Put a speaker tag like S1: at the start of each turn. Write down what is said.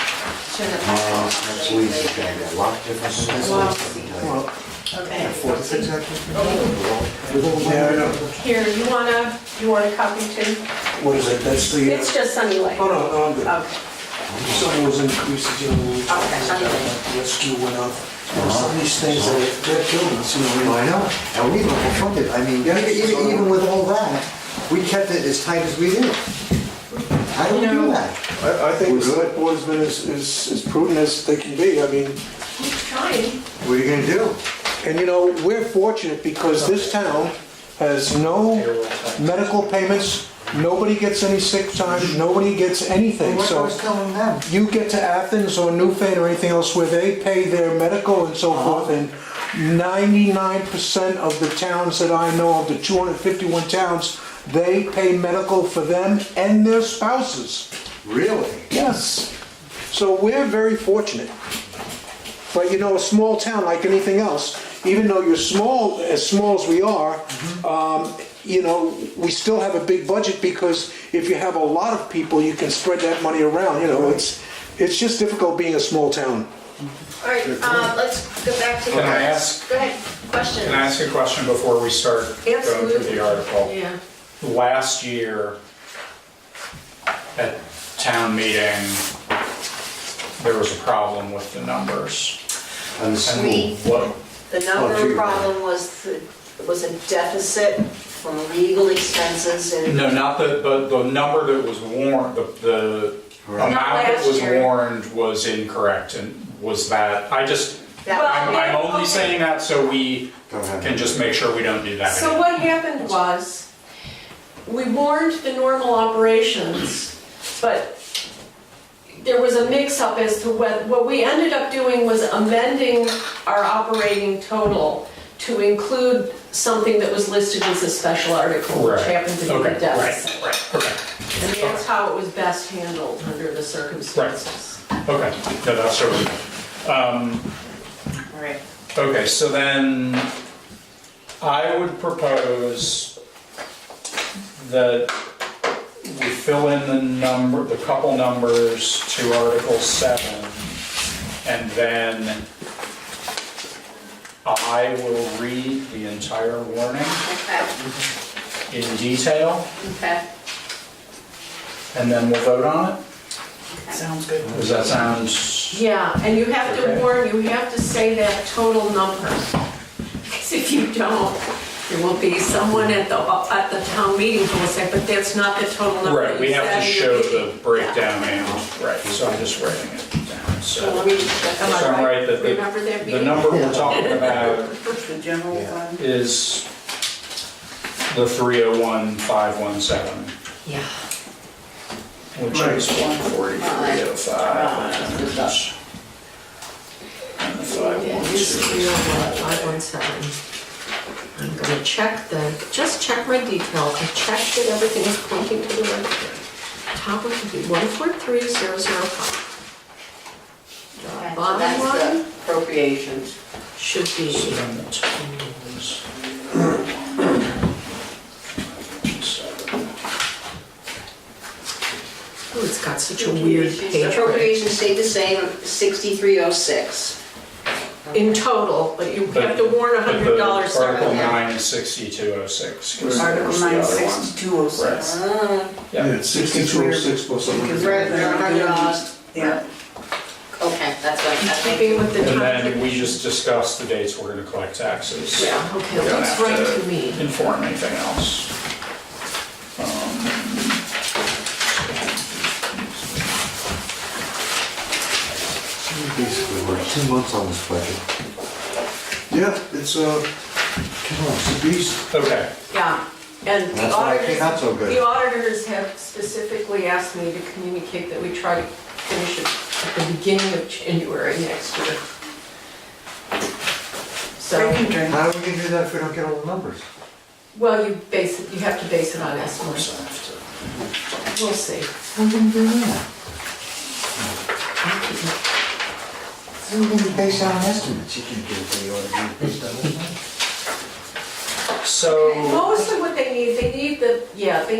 S1: shouldn't
S2: Uh,
S1: have.
S2: Next week is gonna be a lot different than this week, let me tell you.
S3: Well,
S1: Okay.
S3: four to six, I
S4: Yeah, I know.
S1: Here, you wanna, you want a copy too?
S4: What is it, that's the,
S1: It's
S4: uh,
S1: just Sunny Lake.
S4: oh, no, no, I'm good.
S1: Okay.
S4: Some of those increases, you know, we talked about the rescue went up. And Some of these things, that they're killing us, you know,
S2: Well, I
S4: like,
S2: know, and we were confronted, I mean, even, even with all that, we kept it as tight as we did. How do we do that?
S4: I, I think
S2: We're
S4: the select board's been as, as as prudent as they can be, I mean,
S1: He's trying.
S2: What are you gonna do?
S4: and you know, we're fortunate because this town has no medical payments, nobody gets any sick time, nobody gets anything,
S2: What I
S4: so.
S2: was telling them,
S4: You get to Athens or Newfane or anything else where they pay their medical and so forth, and ninety-nine percent of the towns that I know of, the two hundred fifty-one towns, they pay medical for them and their spouses.
S2: really?
S4: Yes. So we're very fortunate. But you know, a small town like anything else, even though you're small, as small as we are, um, you know, we still have a big budget because if you have a lot of people, you can spread that money around, you know, it's, it's just difficult being a small town.
S1: All right, uh, let's go back to.
S5: Can I ask-
S1: Go ahead, question.
S5: Can I ask a question before we start going through
S1: Absolutely.
S5: the article?
S1: Yeah.
S5: Last year, at town meeting, there was a problem with the numbers.
S2: And the school,
S5: And what-
S6: The
S2: Oh, gee.
S6: number problem was, the- was a deficit from legal expenses and
S5: No, not the, but the number that was warned, the, the
S2: Right.
S5: amount that
S1: last
S5: was
S1: year.
S5: warned was incorrect and was that, I just,
S6: that,
S5: I'm, I'm only saying that so we
S2: Don't have
S5: can
S2: it.
S5: just make sure we don't do that
S1: So
S5: again.
S1: what happened was, we warned the normal operations, but there was a mix-up as to what, what we ended up doing was amending our operating total to include something that was listed as a special article, which
S5: Right.
S1: happened to be
S5: Okay,
S1: the
S5: right,
S1: deficit.
S5: Right, okay,
S1: And that's how it was best handled under the circumstances.
S5: okay, no, that's totally.
S6: all right.
S5: Okay, so then I would propose that we fill in the number, the couple numbers to Article 7, and then I will read the entire warning
S6: Okay,
S5: in detail,
S6: okay.
S5: and then we'll vote on it.
S6: Sounds
S5: Does that sound,
S1: Yeah, and you have to
S5: Okay.
S1: warn, you have to say that total number. Because if you don't, there will be someone at the, at the town meeting who will say, but that's not the total number.
S5: right, we
S1: you
S5: have to
S1: said in
S5: show
S1: your
S5: the
S1: meeting."
S5: breakdown and, right, so I'm just writing it down,
S1: Yeah. So let me- am I
S5: So I'm right that the-
S1: Remember that
S5: The
S1: meeting?
S5: number we're talking about
S6: The general fund?
S5: is the 301,517,
S1: Yeah.
S5: which is 143,05. And the
S1: Yeah,
S5: 512.
S1: this is real, uh, 517. I'm gonna check the, just check my details, I checked that everything is pointing to the right thing. Top one would be 143005.
S6: Okay, so
S1: Bottom
S6: that's
S1: line?
S6: the appropriations.
S1: Should
S5: So
S1: be,
S5: then the total is-
S1: oh, it's got such a weird page. break.
S6: Appropriations stayed the same, 6306.
S1: In total, but you have to warn a
S5: But
S1: hundred
S5: the
S1: dollars
S5: Article
S1: separately.
S5: 9 is 6206. 'cause
S7: Article
S5: there's the
S7: nine
S5: other one.
S7: sixty-two oh six.
S4: Yeah,
S5: Yeah.
S4: it's sixty-two oh six plus a hundred.
S6: Right, they're $100.
S7: Yeah.
S6: Okay, that's what, I
S1: Keeping
S6: think.
S1: with the
S5: And
S1: time.
S5: then we just discussed the dates we're going to collect taxes.
S1: Yeah, okay,
S5: You don't
S1: looks
S5: have
S1: right to me.
S5: Inform anything else.
S2: Basically, we're two months on this budget.
S4: Yeah, it's, uh,
S2: Come on,
S4: it's a beast.
S5: Okay,
S1: Yeah, and the
S2: That's why I
S1: auditors,
S2: came out so good.
S1: the auditors have specifically asked me to communicate that we try to finish it at the beginning of January next year. So,
S2: how are we gonna do that if we don't get all the numbers?
S1: well, you base, it. you have to base it on estimates, we'll see.
S2: How are we gonna do that? How are we gonna base it on estimates? You can't give it to the auditor based on estimates.
S5: so.
S1: Mostly what they need, they need the, yeah, they